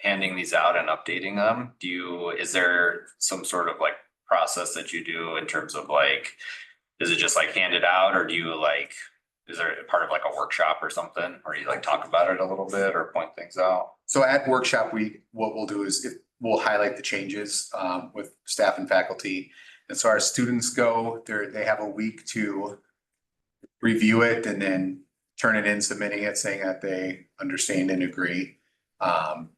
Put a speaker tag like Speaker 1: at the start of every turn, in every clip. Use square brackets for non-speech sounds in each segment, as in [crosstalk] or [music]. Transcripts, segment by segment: Speaker 1: handing these out and updating them, do you, is there some sort of like process that you do in terms of like, is it just like handed out or do you like, is there a part of like a workshop or something, or you like talk about it a little bit or point things out?
Speaker 2: So at workshop, we, what we'll do is if, we'll highlight the changes um with staff and faculty. And so our students go, they're, they have a week to review it and then turn it in, submitting it, saying that they understand and agree. Um,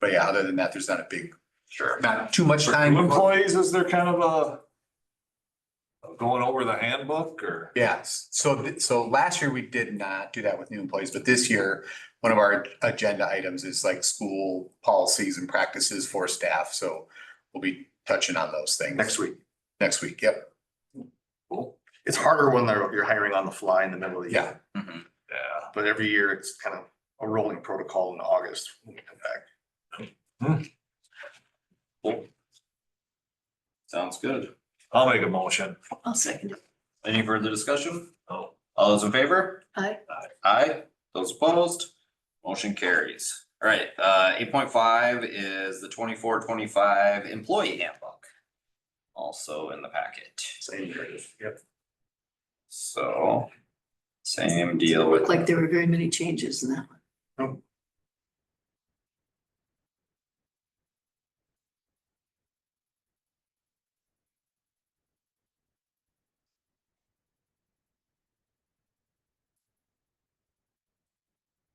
Speaker 2: but yeah, other than that, there's not a big,
Speaker 1: Sure.
Speaker 2: not too much
Speaker 3: For
Speaker 2: time.
Speaker 3: new Employees, is there kind of a going over the handbook or?
Speaker 2: Yes, so, th- so last year we did not do that with new employees, but this year, one of our agenda items is like school policies and practices for staff, so we'll be touching on those things.
Speaker 4: next week.
Speaker 2: Next week, yep,
Speaker 3: Cool.
Speaker 4: It's harder when they're, you're hiring on the fly in the middle of the year.
Speaker 1: Mhm.
Speaker 3: Yeah.
Speaker 4: But every year it's kind of a rolling protocol in August. when we come back.
Speaker 1: Sounds good.
Speaker 3: I'll make a motion.
Speaker 5: I'll second it.
Speaker 1: Any further discussion?
Speaker 3: Oh.
Speaker 1: All those in favor?
Speaker 5: Aye.
Speaker 1: Aye, those opposed, motion carries. All right, uh, eight point five is the 24-25 employee handbook. Also in the packet,
Speaker 4: Same year. Yep.
Speaker 1: so same deal with,
Speaker 5: Looked like there were very many changes in that one.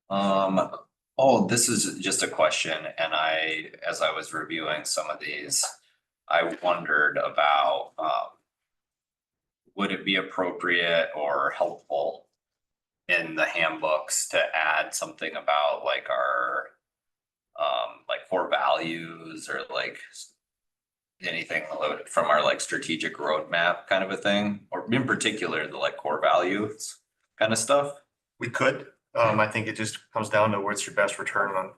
Speaker 1: um, oh, this is just a question and I, as I was reviewing some of these, I wondered about, um, would it be appropriate or helpful in the handbooks to add something about like our um, like core values or like s- anything lo- from our like strategic roadmap kind of a thing, or in particular, the like core values kind of stuff?
Speaker 6: We could. Um, I think it just comes down to what's your best return on,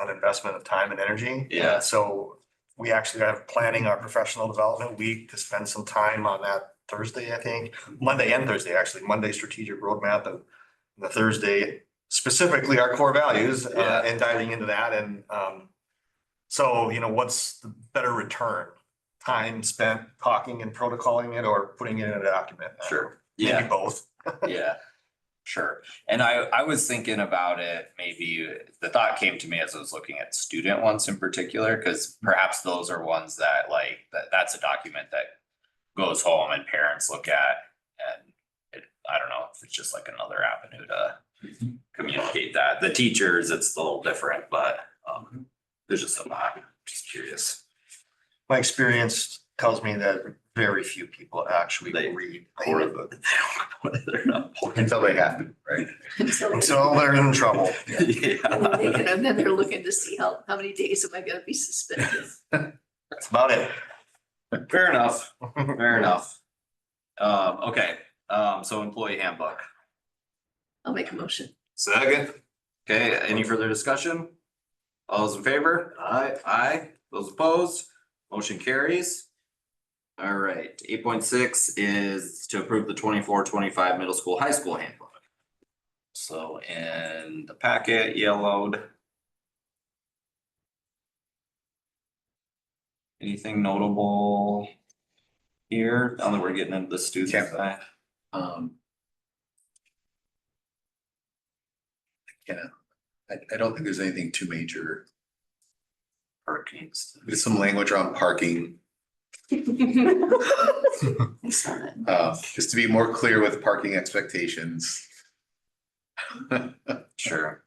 Speaker 6: on investment of time and energy.
Speaker 1: Yeah.
Speaker 6: So we actually have planning our professional development week to spend some time on that Thursday, I think, Monday and Thursday, actually, Monday strategic roadmap and the Thursday specifically our core values,
Speaker 1: Yeah.
Speaker 6: uh, and diving into that and, um, so, you know, what's the better return? Time spent talking and protocoling it or putting it in a document?
Speaker 1: Sure. Yeah.
Speaker 6: Maybe both.
Speaker 1: Yeah, sure. And I, I was thinking about it, maybe the thought came to me as I was looking at student ones in particular, because perhaps those are ones that like, that, that's a document that goes home and parents look at and it, I don't know, if it's just like another avenue to
Speaker 2: Mm-hmm.
Speaker 1: communicate that. The teachers, it's a little different, but,
Speaker 2: Mm-hmm.
Speaker 1: um, there's just a lot, just curious.
Speaker 6: my experience tells me that very few people actually
Speaker 1: They-
Speaker 6: read.
Speaker 1: Or the, [laughs] they're not.
Speaker 2: until they have to.
Speaker 5: [laughs]
Speaker 6: So they're in trouble.
Speaker 5: And then they
Speaker 1: [laughs] Yeah.
Speaker 5: could- and then they're looking to see how, how many days am I gonna be suspended?
Speaker 6: That's about it.
Speaker 1: Fair enough. Fair enough. Um, okay, um, so employee handbook.
Speaker 5: I'll make a motion.
Speaker 3: Second.
Speaker 1: Okay, any further discussion? All those in favor? Aye. Aye, those opposed, motion carries. All right, eight point six is to approve the 24-25 middle school, high school handbook. So in the packet yellowed. Anything notable here? Now that we're getting into the student
Speaker 2: Yeah.
Speaker 1: side.
Speaker 2: Um. I cannot, I, I don't think there's anything too major.
Speaker 1: Hurricanes.
Speaker 2: There's some language around parking,
Speaker 5: I saw that.
Speaker 2: uh, just to be more clear with parking expectations.
Speaker 1: Sure.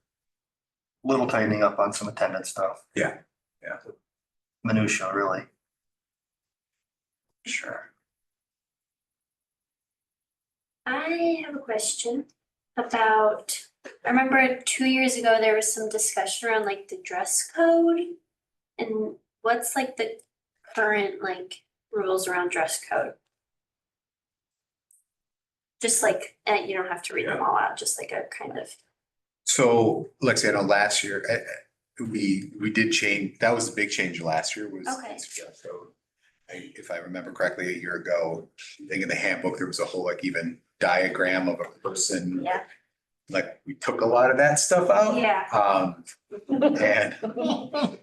Speaker 6: Little tightening up on some attendance stuff.
Speaker 2: Yeah, yeah.
Speaker 6: Minutia, really.
Speaker 1: Sure.
Speaker 7: I have a question about, I remember two years ago, there was some discussion around like the dress code. And what's like the current like rules around dress code? Just like, eh, you don't have to read them all out, just like a kind of,
Speaker 2: So, Lexi, I know last year, eh, eh, we, we did change, that was a big change last year was.
Speaker 7: Okay.
Speaker 2: So, I- If I remember correctly, a year ago, I think in the handbook, there was a whole like even diagram of a person.
Speaker 7: Yeah.
Speaker 2: Like, we took a lot of that stuff out.
Speaker 7: yeah.
Speaker 2: Um, and